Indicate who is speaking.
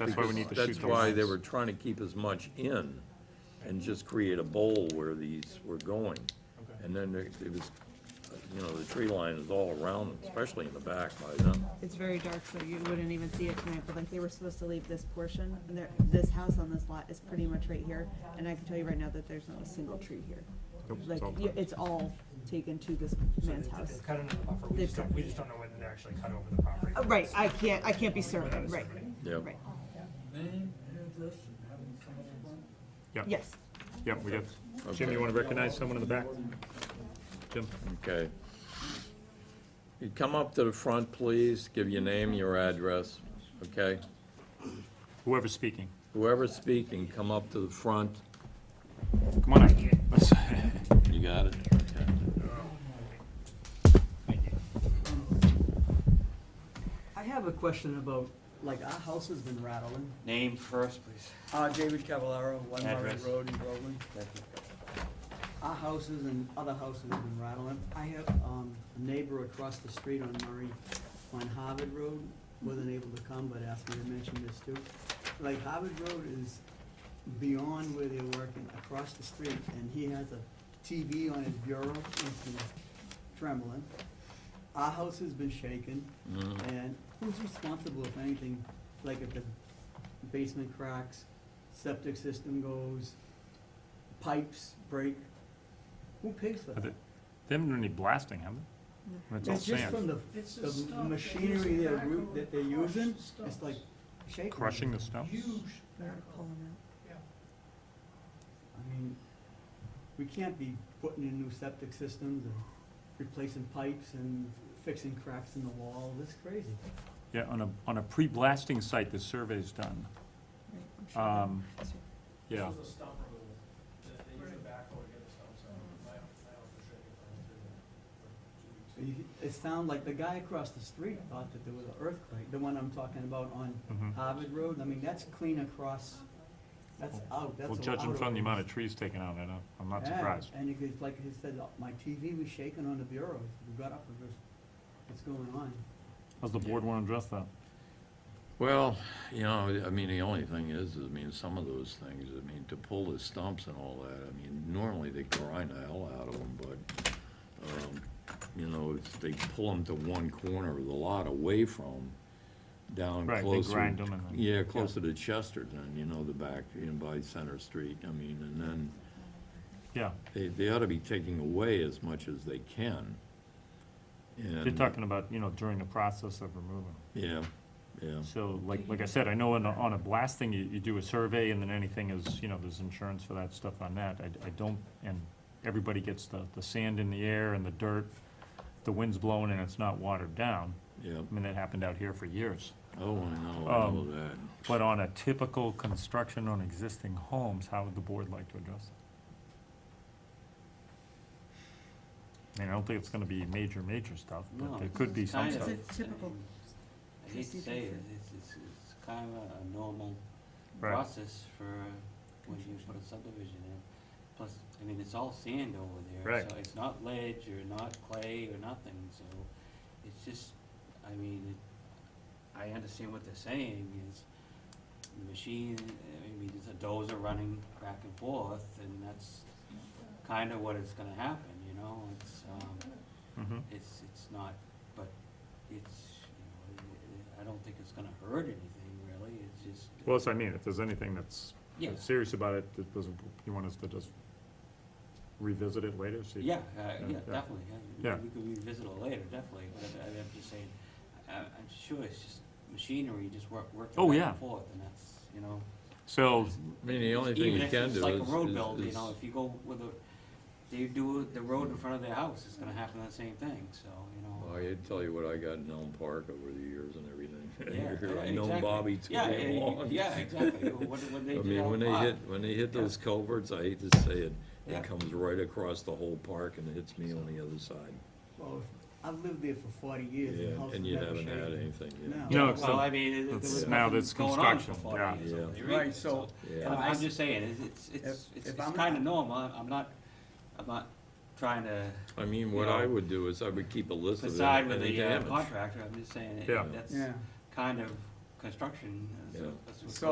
Speaker 1: That's why we need to
Speaker 2: Because
Speaker 1: shoot the
Speaker 2: That's why they
Speaker 1: lines.
Speaker 2: were trying to keep as much in and just create a bowl where these were going. And then there- it was, you know, the tree line is all around, especially in the back by then.
Speaker 3: It's very dark, so you wouldn't even see it tonight, but like, they were supposed to leave this portion, and there, this house on this lot is pretty much right here, and I can tell you right now that there's not a single tree here.
Speaker 1: Nope, it's
Speaker 3: Like,
Speaker 1: all
Speaker 3: y- it's all taken to this
Speaker 4: So
Speaker 3: man's
Speaker 4: it's-
Speaker 3: house.
Speaker 4: It's cut into the buffer, we
Speaker 3: They've
Speaker 4: just don't,
Speaker 3: cut-
Speaker 4: we just don't know whether they actually cut over the property.
Speaker 3: Uh, Right, I can't, I can't be certain, right,
Speaker 2: Yep.
Speaker 3: right,
Speaker 5: Name, address, and how you come up with one?
Speaker 1: Yeah,
Speaker 3: yes.
Speaker 1: yeah, we got, Jim, you wanna recognize someone in the back? Jim,
Speaker 2: Okay. You come up to the front, please, give your name, your address, okay?
Speaker 1: whoever's speaking,
Speaker 2: Whoever's speaking, come up to the front.
Speaker 1: come on up.
Speaker 2: You got it? Okay.
Speaker 6: I have a question about, like, our house has been rattling.
Speaker 7: Name first, please.
Speaker 6: Uh, David Cavallaro, One Margaret
Speaker 7: Address.
Speaker 6: Road in Groveland. Our houses and other houses have been rattling. I have, um, a neighbor across the street on Murray, on Harvard Road, wasn't able to come, but asked me to mention this too. Like, Harvard Road is beyond where they're working, across the street, and he has a TV on his bureau, it's trembling. Our house has been shaken,
Speaker 2: Mm-hmm.
Speaker 6: and who's responsible if anything, like if the basement cracks, septic system goes, pipes break? Who pays for
Speaker 1: Are
Speaker 6: that?
Speaker 1: they- They haven't done any blasting, have they? When It's all
Speaker 6: It's just from
Speaker 1: sand,
Speaker 6: the,
Speaker 5: It's a
Speaker 6: the
Speaker 5: stuff that
Speaker 6: machinery
Speaker 5: is
Speaker 6: they're,
Speaker 5: back
Speaker 6: ru-
Speaker 5: over
Speaker 6: that they're
Speaker 5: crushed
Speaker 6: using,
Speaker 5: stuff.
Speaker 6: it's like shaking.
Speaker 1: crushing the snow?
Speaker 5: Huge
Speaker 3: We're
Speaker 5: backhoe.
Speaker 3: pulling out.
Speaker 6: I mean, we can't be putting in new septic systems and replacing pipes and fixing cracks in the wall, that's crazy.
Speaker 1: Yeah, on a, on a pre-blasting site, the survey's done,
Speaker 3: Right, I'm sure that-
Speaker 1: um, yeah.
Speaker 4: a stump removal, they use the backhoe to get the stumps out, my, my house was shaking for
Speaker 6: So you- It sounded like the guy across the street thought that there was an earthquake, the one I'm talking about on
Speaker 1: mhm.
Speaker 6: Harvard Road, I mean, that's clean across, that's out, that's.
Speaker 1: Well,
Speaker 6: a-
Speaker 1: judging
Speaker 6: out
Speaker 1: from the
Speaker 6: over.
Speaker 1: amount of trees taken out, I don't, I'm not
Speaker 6: Yeah,
Speaker 1: surprised.
Speaker 6: And it was, like he said, uh, my TV was shaking on the bureau, we got up, and goes, what's going on?
Speaker 1: Does the board wanna address that?
Speaker 2: Well, you know, I mean, the only thing is, is, I mean, some of those things, I mean, to pull the stumps and all that, I mean, normally they grind the hell out of them, but, um, you know, if they pull them to one corner of the lot away from, down
Speaker 1: Right, they
Speaker 2: closer.
Speaker 1: grind 'em and then-
Speaker 2: Yeah, closer to Chesterton, you know, the back, in by Center Street, I mean, and then
Speaker 1: Yeah,
Speaker 2: they, they ought to be taking away as much as they can. And-
Speaker 1: you're talking about, you know, during the process of removing.
Speaker 2: Yeah, yeah.
Speaker 1: So, like, like I said, I know on, a- on a blasting, you, you do a survey, and then anything is, you know, there's insurance for that stuff on that, I, I don't, and everybody gets the, the sand in the air and the dirt, the wind's blowing and it's not watered down,
Speaker 2: Yeah,
Speaker 1: I mean, that happened out here for years.
Speaker 2: oh, I know, I know
Speaker 1: Um,
Speaker 2: that.
Speaker 1: But on a typical construction on existing homes, how would the board like to address that? I mean, I don't think it's gonna be major, major stuff,
Speaker 7: No,
Speaker 1: but there could be
Speaker 7: it's
Speaker 1: some
Speaker 7: kind
Speaker 1: stuff.
Speaker 7: of-
Speaker 3: It's a typical
Speaker 7: I hate to say it, it's, it's, it's kind of a- a normal
Speaker 1: Right.
Speaker 7: process for when you put a subdivision in. Plus, I mean, it's all sand over there.
Speaker 1: Right.
Speaker 7: So it's not ledge or not clay or nothing, so it's just, I mean, it- I understand what they're saying is the machine, I mean, it's a dozer running back and forth and that's kind of what is gonna happen, you know, it's, um,
Speaker 1: Mhm.
Speaker 7: it's, it's not, but it's, you know, I- I don't think it's gonna hurt anything really, it's just.
Speaker 1: Well, that's what I mean, if there's anything that's
Speaker 7: Yeah.
Speaker 1: serious about it, that doesn't, you want us to just revisit it later, see?
Speaker 7: Yeah, uh, yeah,
Speaker 1: yeah.
Speaker 7: definitely, yeah,
Speaker 1: Yeah.
Speaker 7: we we could revisit it later, definitely, but I- I'm just saying, I, I'm sure it's just machinery, just work, working
Speaker 1: Oh,
Speaker 7: back
Speaker 1: yeah.
Speaker 7: and forth, and that's, you know.
Speaker 1: So,
Speaker 2: I mean, the only thing
Speaker 7: even
Speaker 2: you
Speaker 7: if
Speaker 2: can
Speaker 7: it's
Speaker 2: do
Speaker 7: like a
Speaker 2: is-
Speaker 7: road
Speaker 2: is-
Speaker 7: build, you
Speaker 2: is-
Speaker 7: know, if you go with a, they do the road in front of their house, it's gonna happen the same thing, so, you know.
Speaker 2: Well, I tell you what I got in Elm Park over the years and
Speaker 7: Yeah,
Speaker 2: everything. I
Speaker 7: yeah,
Speaker 2: know
Speaker 7: exactly.
Speaker 2: Bobby too
Speaker 7: Yeah,
Speaker 2: damn
Speaker 7: yeah,
Speaker 2: long.
Speaker 7: Yeah, exactly, when, when they
Speaker 2: I
Speaker 7: did
Speaker 2: mean,
Speaker 7: Elm
Speaker 2: when they
Speaker 7: Park,
Speaker 2: hit, when they hit
Speaker 7: Yeah.
Speaker 2: those culverts, I hate to say it,
Speaker 7: Yeah.
Speaker 2: it comes right across the whole park and hits me on the other side.
Speaker 6: Well, I've lived there for forty years, and the
Speaker 2: Yeah,
Speaker 6: house
Speaker 2: and
Speaker 6: has
Speaker 2: you
Speaker 6: never
Speaker 2: haven't had
Speaker 6: shaken.
Speaker 2: anything yet.
Speaker 6: No.
Speaker 1: No,
Speaker 7: Well,
Speaker 1: so,
Speaker 7: I mean, it- there
Speaker 1: it's
Speaker 7: was
Speaker 1: now
Speaker 7: nothing
Speaker 1: that's
Speaker 7: going on for
Speaker 1: construction,
Speaker 7: 40
Speaker 1: yeah.
Speaker 7: years, so
Speaker 2: Yeah.
Speaker 7: you
Speaker 6: Right,
Speaker 7: read it,
Speaker 6: so-
Speaker 2: Yeah.
Speaker 7: I'm I'm just saying, it's- it's, it's,
Speaker 6: If-
Speaker 7: it's,
Speaker 6: if
Speaker 7: it's
Speaker 6: I'm
Speaker 7: kinda
Speaker 6: not-
Speaker 7: normal, I'm I'm not, I'm not trying to
Speaker 2: I mean, what I would do is I would keep a list of
Speaker 7: decide
Speaker 2: any
Speaker 7: with
Speaker 2: any
Speaker 7: the uh,
Speaker 2: damage.
Speaker 7: contractor, I'm just saying,
Speaker 1: Yeah.
Speaker 7: it- that's
Speaker 6: Yeah,
Speaker 7: kind of construction, uh, so
Speaker 2: Yeah.
Speaker 7: that's what's.
Speaker 6: So